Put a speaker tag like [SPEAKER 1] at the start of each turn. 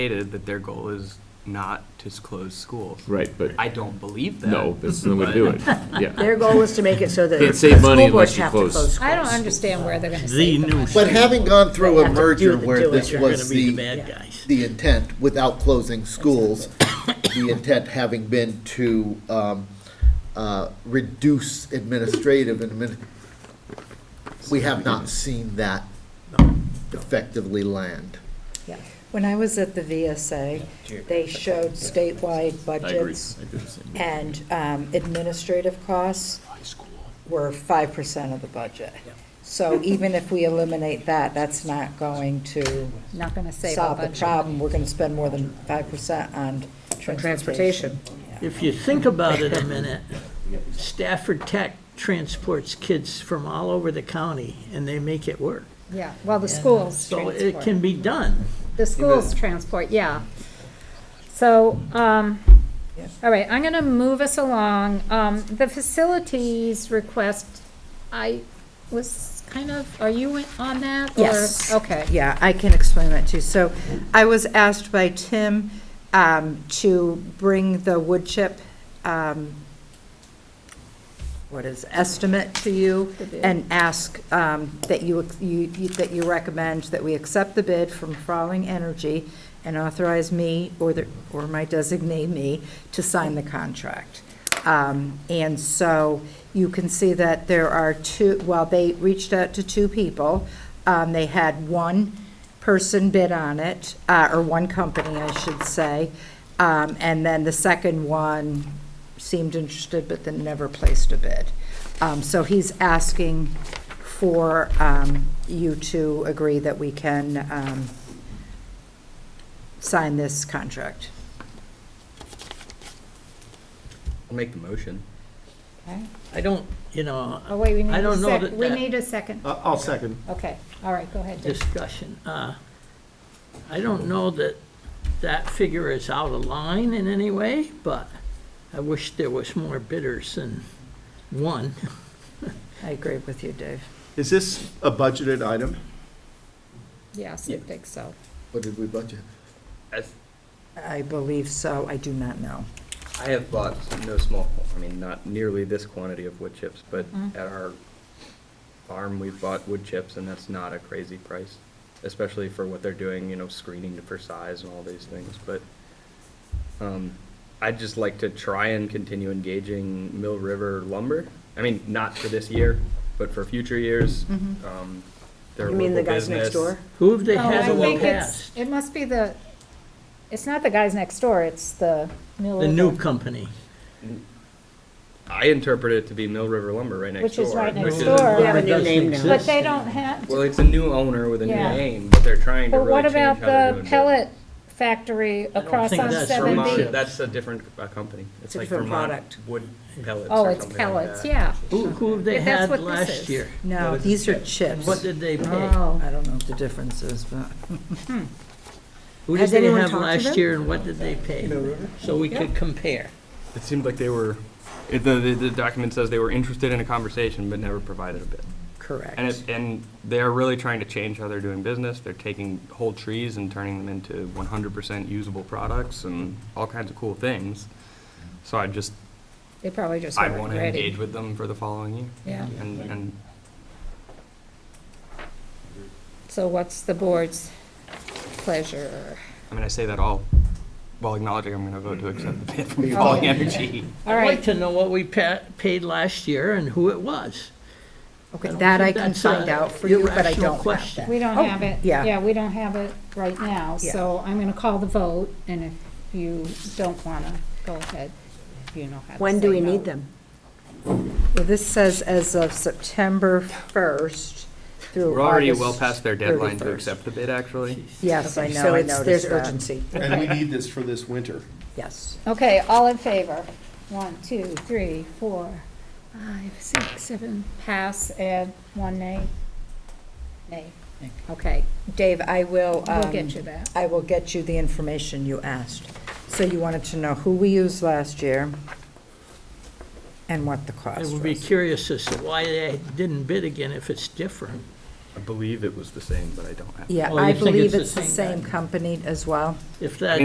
[SPEAKER 1] stated that their goal is not to s- close schools.
[SPEAKER 2] Right, but
[SPEAKER 1] I don't believe that.
[SPEAKER 2] no, that's the way to do it. Yeah.
[SPEAKER 3] Their goal is to make it so that the
[SPEAKER 2] Can't save money
[SPEAKER 3] school boards
[SPEAKER 2] unless you
[SPEAKER 3] have to
[SPEAKER 2] close.
[SPEAKER 3] close
[SPEAKER 4] I don't
[SPEAKER 3] schools.
[SPEAKER 4] understand where they're gonna save the
[SPEAKER 5] new
[SPEAKER 4] money.
[SPEAKER 5] sh-
[SPEAKER 6] But having gone through
[SPEAKER 3] They
[SPEAKER 6] a
[SPEAKER 3] have to do
[SPEAKER 6] merger
[SPEAKER 3] the
[SPEAKER 6] where
[SPEAKER 3] doing.
[SPEAKER 6] this
[SPEAKER 3] You're
[SPEAKER 6] was
[SPEAKER 5] be the
[SPEAKER 6] the,
[SPEAKER 5] bad guys.
[SPEAKER 6] the intent, without closing schools, the intent having been to um, uh, reduce administrative and admin, we have not seen that effectively land.
[SPEAKER 3] Yeah.
[SPEAKER 7] When I was at the VSA, they showed statewide
[SPEAKER 2] I agree.
[SPEAKER 7] budgets
[SPEAKER 2] I do the same.
[SPEAKER 7] and um, administrative costs were five percent of the budget. So even if we eliminate that, that's not going to
[SPEAKER 4] Not gonna save a
[SPEAKER 7] solve the
[SPEAKER 4] bunch of
[SPEAKER 7] problem. We're gonna spend more than five percent on transportation.
[SPEAKER 3] transportation.
[SPEAKER 5] If you think about it a minute, Stafford Tech transports kids from all over the county, and they make it work.
[SPEAKER 4] Yeah, well, the schools
[SPEAKER 5] So it can
[SPEAKER 4] transport.
[SPEAKER 5] be done.
[SPEAKER 4] The schools transport, yeah. So, um, all right, I'm gonna move us along. Um, the facilities request, I was kind of, are you on that? or-
[SPEAKER 7] Yes.
[SPEAKER 4] Okay.
[SPEAKER 7] Yeah, I can explain that too. So I was asked by Tim um, to bring the wood chip, um, what is, estimate to you
[SPEAKER 4] The bid.
[SPEAKER 7] and ask um, that you, you- you- that you recommend that we accept the bid from Frawling Energy and authorize me or the, or my designate me to sign the contract. Um, And so you can see that there are two, well, they reached out to two people. Um, They had one person bid on it, uh, or one company, I should say. Um, And then the second one seemed interested, but then never placed a bid. Um, So he's asking for um, you to agree that we can um, sign this contract.
[SPEAKER 1] I'll make the motion.
[SPEAKER 5] I don't, you know,
[SPEAKER 4] Oh, wait, we need
[SPEAKER 5] I
[SPEAKER 4] a
[SPEAKER 5] don't know
[SPEAKER 4] sec,
[SPEAKER 5] that Uh,
[SPEAKER 4] we
[SPEAKER 5] that-
[SPEAKER 4] need a second.
[SPEAKER 8] I- I'll second.
[SPEAKER 4] Okay, all right, go ahead. Dick.
[SPEAKER 5] discussion. Uh, I don't know that that figure is out of line in any way, but I wish there was more bidders than one.
[SPEAKER 7] I agree with you, Dave.
[SPEAKER 8] Is this a budgeted item?
[SPEAKER 4] Yes, I think so.
[SPEAKER 6] What did we budget?
[SPEAKER 7] I believe so. I do not know.
[SPEAKER 1] I have bought no small, I mean, not nearly this quantity of wood chips, but at our farm, we've bought wood chips, and that's not a crazy price, especially for what they're doing, you know, screening for size and all these things, but um, I'd just like to try and continue engaging Mill River Lumber. I mean, not for this year, but for future years.
[SPEAKER 4] Mm-hmm.
[SPEAKER 1] Um, they're
[SPEAKER 3] You mean the
[SPEAKER 1] local
[SPEAKER 3] guys next
[SPEAKER 1] business.
[SPEAKER 3] door?
[SPEAKER 5] Who have they
[SPEAKER 4] Oh,
[SPEAKER 5] had
[SPEAKER 4] I
[SPEAKER 5] in the
[SPEAKER 4] think it's-
[SPEAKER 5] past?
[SPEAKER 4] It must be the, it's not the guys next door, it's the mill.
[SPEAKER 5] The new company.
[SPEAKER 1] I interpret it to be Mill River Lumber right next
[SPEAKER 4] Which
[SPEAKER 1] door.
[SPEAKER 4] is right next
[SPEAKER 1] is-
[SPEAKER 4] door.
[SPEAKER 3] We have a new
[SPEAKER 5] Doesn't
[SPEAKER 3] name now.
[SPEAKER 5] exist
[SPEAKER 4] But they
[SPEAKER 5] anymore.
[SPEAKER 4] don't have,
[SPEAKER 1] Well, it's a new owner with a new
[SPEAKER 4] Yeah.
[SPEAKER 1] name, but they're trying to
[SPEAKER 4] but
[SPEAKER 1] really
[SPEAKER 4] what
[SPEAKER 1] change how
[SPEAKER 4] about
[SPEAKER 1] they're
[SPEAKER 4] the
[SPEAKER 1] doing
[SPEAKER 4] pellet
[SPEAKER 1] business.
[SPEAKER 4] factory across
[SPEAKER 5] think
[SPEAKER 4] on
[SPEAKER 5] that's
[SPEAKER 4] seventy?
[SPEAKER 1] Vermont, that's a different uh, company. It's
[SPEAKER 3] a
[SPEAKER 1] like
[SPEAKER 3] different
[SPEAKER 1] Vermont
[SPEAKER 3] product.
[SPEAKER 1] wood pellets
[SPEAKER 4] Oh,
[SPEAKER 1] or
[SPEAKER 4] it's
[SPEAKER 1] something like
[SPEAKER 4] pellets,
[SPEAKER 1] that.
[SPEAKER 4] yeah.
[SPEAKER 5] Who, who have they
[SPEAKER 4] If that's
[SPEAKER 5] had
[SPEAKER 4] what this is.
[SPEAKER 5] last year?
[SPEAKER 7] No, these are chips.
[SPEAKER 5] What did they pay?
[SPEAKER 7] I don't know what the difference is, but.
[SPEAKER 5] Who did
[SPEAKER 3] Has
[SPEAKER 5] they
[SPEAKER 3] anyone
[SPEAKER 5] have
[SPEAKER 3] talked to
[SPEAKER 5] last
[SPEAKER 3] them?
[SPEAKER 5] year and what did they pay? So we could compare.
[SPEAKER 1] It seemed like they were, it- the, the the document says they were interested in a conversation but never provided a bid. And
[SPEAKER 5] Correct.
[SPEAKER 1] it, and they're really trying to change how they're doing business. They're taking whole trees and turning them into one hundred percent usable products and all kinds of cool things. So I just,
[SPEAKER 4] They probably just
[SPEAKER 1] I
[SPEAKER 4] weren't
[SPEAKER 1] want to engage
[SPEAKER 4] ready.
[SPEAKER 1] with them for the following year.
[SPEAKER 4] Yeah,
[SPEAKER 1] And, and
[SPEAKER 4] so what's the board's pleasure?
[SPEAKER 1] I mean, I say that all while acknowledging I'm going to vote to accept the bid from
[SPEAKER 4] Oh.
[SPEAKER 1] Falling Energy.
[SPEAKER 4] All
[SPEAKER 5] I'd like
[SPEAKER 4] right,
[SPEAKER 5] to know what we pa- paid last year and who it was.
[SPEAKER 7] Okay,
[SPEAKER 5] don't
[SPEAKER 7] that I
[SPEAKER 5] think
[SPEAKER 7] can
[SPEAKER 5] that's
[SPEAKER 7] find
[SPEAKER 5] a
[SPEAKER 7] out for you, but I
[SPEAKER 5] irrational
[SPEAKER 7] don't have
[SPEAKER 5] question.
[SPEAKER 7] that.
[SPEAKER 4] we don't
[SPEAKER 7] Oh,
[SPEAKER 4] have it,
[SPEAKER 7] yeah.
[SPEAKER 4] yeah, we don't have it right now,
[SPEAKER 7] Yeah.
[SPEAKER 4] so I'm gonna call the vote, and if you don't wanna, go ahead, if you know how to
[SPEAKER 3] When do
[SPEAKER 4] say
[SPEAKER 3] we
[SPEAKER 4] no.
[SPEAKER 3] need them?
[SPEAKER 7] Well, this says as of September 1st through August.
[SPEAKER 1] We're already well past their deadline to
[SPEAKER 7] 31st.
[SPEAKER 1] accept the bid, actually.
[SPEAKER 7] Yes, I know,
[SPEAKER 3] So
[SPEAKER 7] I
[SPEAKER 3] it's- There's
[SPEAKER 7] noticed that.
[SPEAKER 3] urgency.
[SPEAKER 8] And we need this for this winter.
[SPEAKER 7] Yes.
[SPEAKER 4] Okay, all in favor? One, two, three, four, five, six, seven, pass, and one nay? Nay. Okay,
[SPEAKER 7] Dave, I will.
[SPEAKER 4] we'll
[SPEAKER 7] um,
[SPEAKER 4] get you that.
[SPEAKER 7] I will get you the information you asked. So you wanted to know who we used last year and what the
[SPEAKER 5] I
[SPEAKER 7] cost
[SPEAKER 5] would be
[SPEAKER 7] was.
[SPEAKER 5] curious as to why they didn't bid again if it's different.
[SPEAKER 9] I believe it was the same, but I don't have.
[SPEAKER 7] Yeah,
[SPEAKER 5] Oh, you
[SPEAKER 7] I
[SPEAKER 5] think it's
[SPEAKER 7] believe
[SPEAKER 5] the
[SPEAKER 7] it's the
[SPEAKER 5] same
[SPEAKER 7] same
[SPEAKER 5] guy.
[SPEAKER 7] company as well.
[SPEAKER 5] If that